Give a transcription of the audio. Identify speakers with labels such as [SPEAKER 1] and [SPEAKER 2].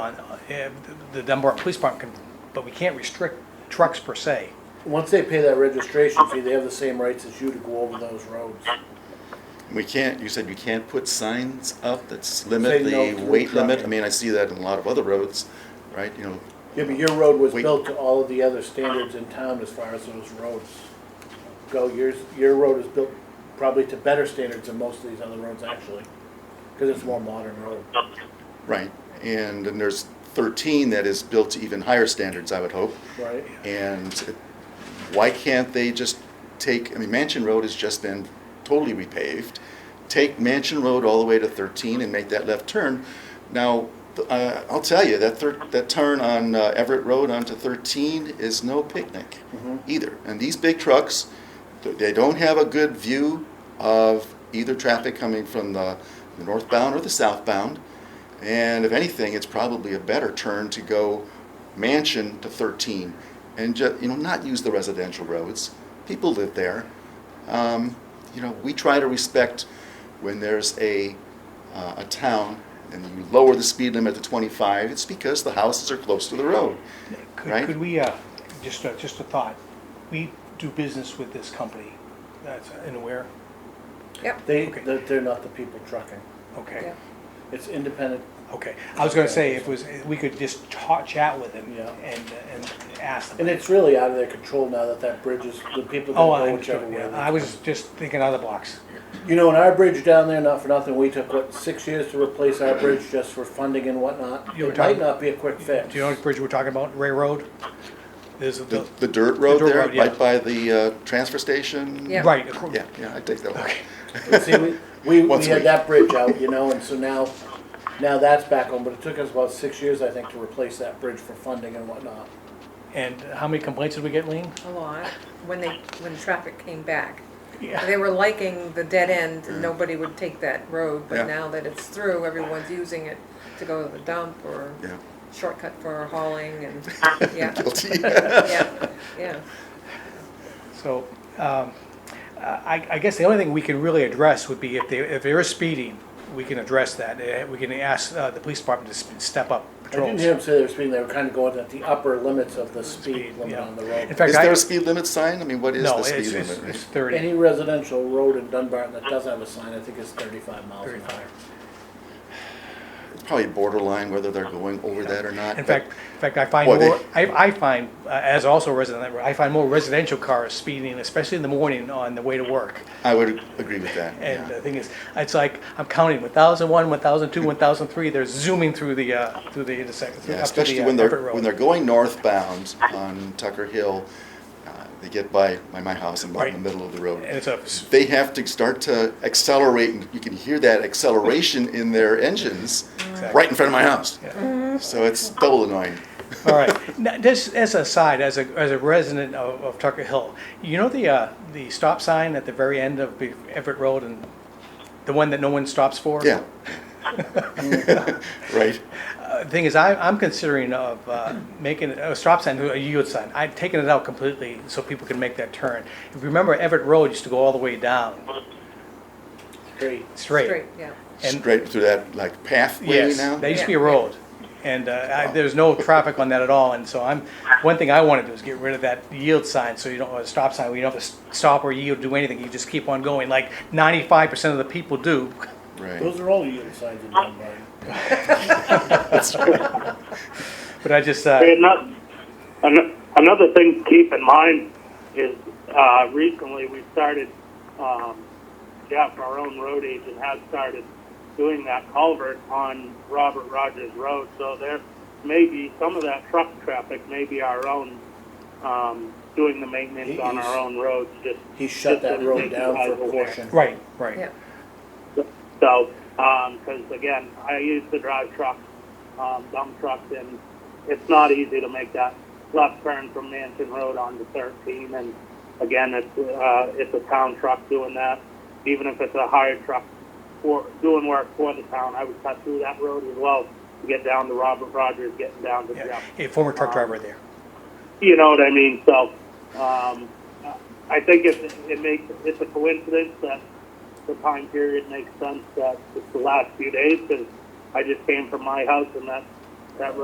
[SPEAKER 1] on, uh, eh, the Dunbar Police Department can, but we can't restrict trucks per se.
[SPEAKER 2] Once they pay that registration fee, they have the same rights as you to go over those roads.
[SPEAKER 3] We can't, you said you can't put signs up that
[SPEAKER 2] Say
[SPEAKER 3] limit
[SPEAKER 2] no
[SPEAKER 3] the
[SPEAKER 2] to
[SPEAKER 3] weight
[SPEAKER 2] truck.
[SPEAKER 3] limit? I mean, I see that in a lot of other roads, right, you know,
[SPEAKER 2] Yeah, but your road was
[SPEAKER 3] Wait.
[SPEAKER 2] built to all of the other standards in town as far as those roads go. Yours, your road is built probably to better standards than most of these other roads actually, because it's a more modern road.
[SPEAKER 3] right. And then there's thirteen that is built to even higher standards, I would hope.
[SPEAKER 2] Right.
[SPEAKER 3] And it- why can't they just take, I mean, Mansion Road has just been totally repaved. Take Mansion Road all the way to 13 and make that left turn. Now, th- uh, I'll tell you, that thir- that turn on uh, Everett Road onto 13 is no picnic either. And these big trucks, th- they don't have a good view of either traffic coming from the the northbound or the southbound. And if anything, it's probably a better turn to go mansion to 13 and ju- you know, not use the residential roads. People live there. Um, you know, we try to respect when there's a, uh, a town and you lower the speed limit to 25, it's because the houses are close to the road.
[SPEAKER 1] Could,
[SPEAKER 3] Right.
[SPEAKER 1] could we, uh, just, a- just a thought, we do business with this company, that's in where?
[SPEAKER 4] Yep.
[SPEAKER 2] They,
[SPEAKER 1] Okay.
[SPEAKER 2] they're they're not the people trucking.
[SPEAKER 1] Okay,
[SPEAKER 4] Yeah.
[SPEAKER 2] It's independent.
[SPEAKER 1] okay. I was gonna say, if it was, we could just talk, chat with them
[SPEAKER 2] Yeah.
[SPEAKER 1] and, and ask them.
[SPEAKER 2] And it's really out of their control now that that bridge is, the people
[SPEAKER 1] Oh,
[SPEAKER 2] can
[SPEAKER 1] I,
[SPEAKER 2] go whichever way.
[SPEAKER 1] yeah,
[SPEAKER 2] they
[SPEAKER 1] I was just thinking out of the box.
[SPEAKER 2] You know, in our bridge down there, not for nothing, we took, what, six years to replace our bridge just for funding and whatnot.
[SPEAKER 1] You were
[SPEAKER 2] It might
[SPEAKER 1] talking-
[SPEAKER 2] not be a quick fix.
[SPEAKER 1] Do you know what bridge we're talking about, Ray Road? There's a-
[SPEAKER 3] The, the dirt road
[SPEAKER 1] dirt
[SPEAKER 3] there,
[SPEAKER 1] road, yeah.
[SPEAKER 3] right by the uh, transfer station.
[SPEAKER 4] Yeah.
[SPEAKER 1] Right. acro-
[SPEAKER 3] Yeah, yeah, I take that one.
[SPEAKER 2] See, we, we, we
[SPEAKER 3] Once a
[SPEAKER 2] had
[SPEAKER 3] week.
[SPEAKER 2] that bridge out, you know, and so now, now that's back on, but it took us about six years, I think, to replace that bridge for funding and whatnot.
[SPEAKER 1] And how many complaints did we get, Lean?
[SPEAKER 4] A lot, when they, when traffic came back.
[SPEAKER 1] Yeah.
[SPEAKER 4] They were liking the dead end, and nobody would take that road,
[SPEAKER 3] Mm. Yeah.
[SPEAKER 4] but now that it's through, everyone's using it to go to the dump or
[SPEAKER 3] Yeah.
[SPEAKER 4] shortcut for hauling and, yeah,
[SPEAKER 3] Guilty.
[SPEAKER 4] yeah, yeah.
[SPEAKER 1] So, um, I, I guess the only thing we can really address would be if they, if they're speeding, we can address that. Eh, We can ask, uh, the police department to s- step up
[SPEAKER 2] I didn't
[SPEAKER 1] patrols.
[SPEAKER 2] hear them say they were speeding, they were kind of going at the upper limits of the speed limit
[SPEAKER 1] yeah.
[SPEAKER 2] on the
[SPEAKER 1] In
[SPEAKER 2] road.
[SPEAKER 1] fact,
[SPEAKER 3] Is
[SPEAKER 1] I-
[SPEAKER 3] there a speed limit sign? I mean, what is
[SPEAKER 1] No,
[SPEAKER 3] the
[SPEAKER 1] it's,
[SPEAKER 3] speed
[SPEAKER 1] it's
[SPEAKER 3] limit?
[SPEAKER 1] it's thirty,
[SPEAKER 2] Any residential road in Dunbarton that doesn't have a sign, I think is thirty-five miles an hour.
[SPEAKER 1] thirty-five.
[SPEAKER 3] It's probably borderline whether they're going over that or not.
[SPEAKER 1] In
[SPEAKER 3] but-
[SPEAKER 1] fact, in fact, I find
[SPEAKER 3] Boy, they-
[SPEAKER 1] more, I, I find, uh, as also a resident, I find more residential cars speeding, especially in the morning on the way to work.
[SPEAKER 3] I would agree with that.
[SPEAKER 1] And uh,
[SPEAKER 3] yeah.
[SPEAKER 1] the thing is, it's like, I'm counting 1,001, 1,002, 1,003, they're zooming through the, uh, through the intersection, through-
[SPEAKER 3] Yeah,
[SPEAKER 1] up to the
[SPEAKER 3] especially
[SPEAKER 1] uh,
[SPEAKER 3] when
[SPEAKER 1] Everett
[SPEAKER 3] they're when they're
[SPEAKER 1] Road.
[SPEAKER 3] going northbound on Tucker Hill, uh, they get by by my house and about in the
[SPEAKER 1] Right.
[SPEAKER 3] middle of the
[SPEAKER 1] And
[SPEAKER 3] road.
[SPEAKER 1] it's a,
[SPEAKER 3] They have to start to accelerate, and you can hear that acceleration in their engines right in front of my house.
[SPEAKER 1] yeah.
[SPEAKER 3] So it's double annoying.
[SPEAKER 1] all right. Now, just as a side, as a, as a resident of, of Tucker Hill, you know the, uh, the stop sign at the very end of the Everett Road and the one that no one stops for?
[SPEAKER 3] Yeah. right.
[SPEAKER 1] Uh, The thing is, I, I'm considering of uh, making a stop sign, a yield sign. I've taken it out completely so people can make that turn. If you remember, Everett Road used to go all the way down,
[SPEAKER 2] Great.
[SPEAKER 4] Straight, yeah.
[SPEAKER 1] And-
[SPEAKER 3] Straight through that like pathway
[SPEAKER 1] Yes,
[SPEAKER 3] now.
[SPEAKER 1] that used to be
[SPEAKER 4] Yeah.
[SPEAKER 1] a road, and uh, I- there's no traffic on that at all, and so I'm, one thing I want to do is get rid of that yield sign, so you don't, or stop sign, where you don't have to s- stop or yield, do anything, you just keep on going, like ninety-five percent of the people do.
[SPEAKER 3] right.
[SPEAKER 2] Those are all yield signs in Dunbarton.
[SPEAKER 1] But I just, uh,
[SPEAKER 5] And that, an, another thing to keep in mind is uh, recently we started, um, Jeff, our own road agent, has started doing that culvert on Robert Rogers Road. So there may be some of that truck traffic, may be our own, um, doing the maintenance on our own roads. Just
[SPEAKER 2] He shut
[SPEAKER 5] just so
[SPEAKER 2] that
[SPEAKER 5] you
[SPEAKER 2] road down
[SPEAKER 5] guys
[SPEAKER 2] for
[SPEAKER 5] are
[SPEAKER 2] a
[SPEAKER 5] aware.
[SPEAKER 2] portion.
[SPEAKER 1] right, right,
[SPEAKER 4] Yeah,
[SPEAKER 5] So, because again, I used to drive trucks, um, dump trucks, and it's not easy to make that left turn from Mansion Road onto 13. And again, it's uh, it's a town truck doing that. Even if it's a hired truck for doing work for the town, I would cut through that road as well to get down to Robert Rogers, getting down to
[SPEAKER 1] yeah,
[SPEAKER 5] Jeff.
[SPEAKER 1] Hey, former truck driver there.
[SPEAKER 5] You know what I mean? So, um, I think it, it makes, it's a coincidence that the time period makes sense that it's the last few days because I just came from my house and that's that road